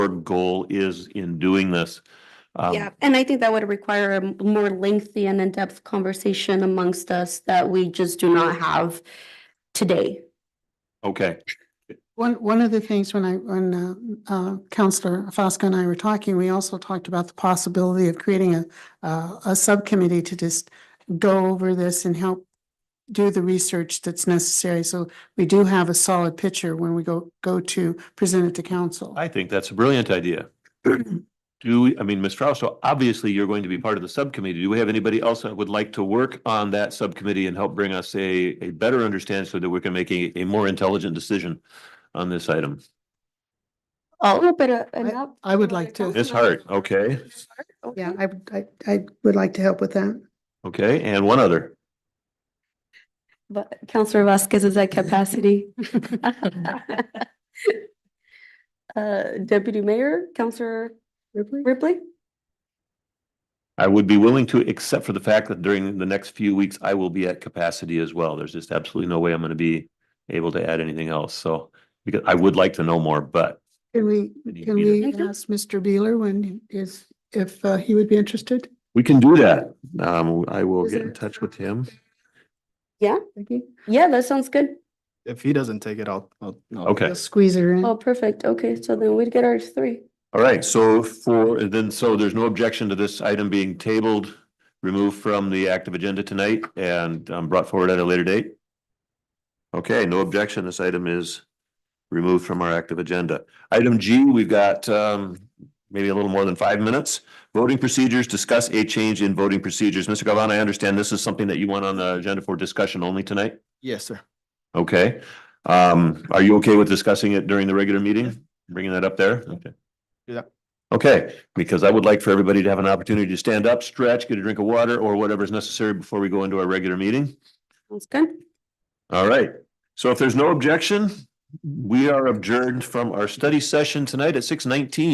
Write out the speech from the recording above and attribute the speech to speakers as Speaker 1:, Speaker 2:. Speaker 1: goal is in doing this. Um,
Speaker 2: Yeah, and I think that would require a more lengthy and in-depth conversation amongst us that we just do not have today.
Speaker 1: Okay,
Speaker 3: One, one of the things when I, when uh, uh, Counselor Fosco and I were talking, we also talked about the possibility of creating a, uh, a subcommittee to just go over this and help do the research that's necessary. So we do have a solid picture when we go, go to present it to council.
Speaker 1: I think that's a brilliant idea. Do, we- I mean, Ms. Frausto, obviously you're going to be part of the subcommittee. Do we have anybody else that would like to work on that subcommittee and help bring us a, a better understanding so that we can make a, a more intelligent decision on this item?
Speaker 2: Oh, but uh, enough.
Speaker 3: I would like to.
Speaker 1: Ms. Hart, okay,
Speaker 3: Yeah, I, would- I, I would like to help with that.
Speaker 1: okay, and one other.
Speaker 2: But Counselor Vasquez is at capacity. Uh, Deputy Mayor, Counselor Ripley?
Speaker 1: I would be willing to, except for the fact that during the next few weeks, I will be at capacity as well. There's just absolutely no way I'm gonna be able to add anything else, so. Because I would like to know more, but
Speaker 3: Can we,
Speaker 1: Need
Speaker 3: can
Speaker 1: Beeler.
Speaker 3: we ask Mr. Beeler when is, if uh, he would be interested?
Speaker 1: we can do that. Um, I will
Speaker 3: Is
Speaker 1: get
Speaker 3: there-
Speaker 1: in touch with him.
Speaker 3: Vicky?
Speaker 2: Yeah, that sounds good.
Speaker 4: If he doesn't take it, I'll, I'll. I'll-
Speaker 1: Okay,
Speaker 3: Squeeze her in.
Speaker 2: Oh, perfect. Okay, so then we'd get our three.
Speaker 1: all right, so for, then, so there's no objection to this item being tabled, removed from the active agenda tonight and um, brought forward at a later date? Okay, no objection. This item is removed from our active agenda. Item G, we've got um, maybe a little more than five minutes. Voting procedures, discuss a change in voting procedures. Mr. Galvin, I understand this is something that you want on the agenda for discussion only tonight?
Speaker 4: Yes, sir.
Speaker 1: Okay, um, are you okay with discussing it during the regular meeting? Bringing that up there? Okay.
Speaker 4: Do that.
Speaker 1: Okay, because I would like for everybody to have an opportunity to stand up, stretch, get a drink of water or whatever is necessary before we go into our regular meeting.
Speaker 2: Sounds good.
Speaker 1: All right, so if there's no objection, we are adjourned from our study session tonight at six nineteen.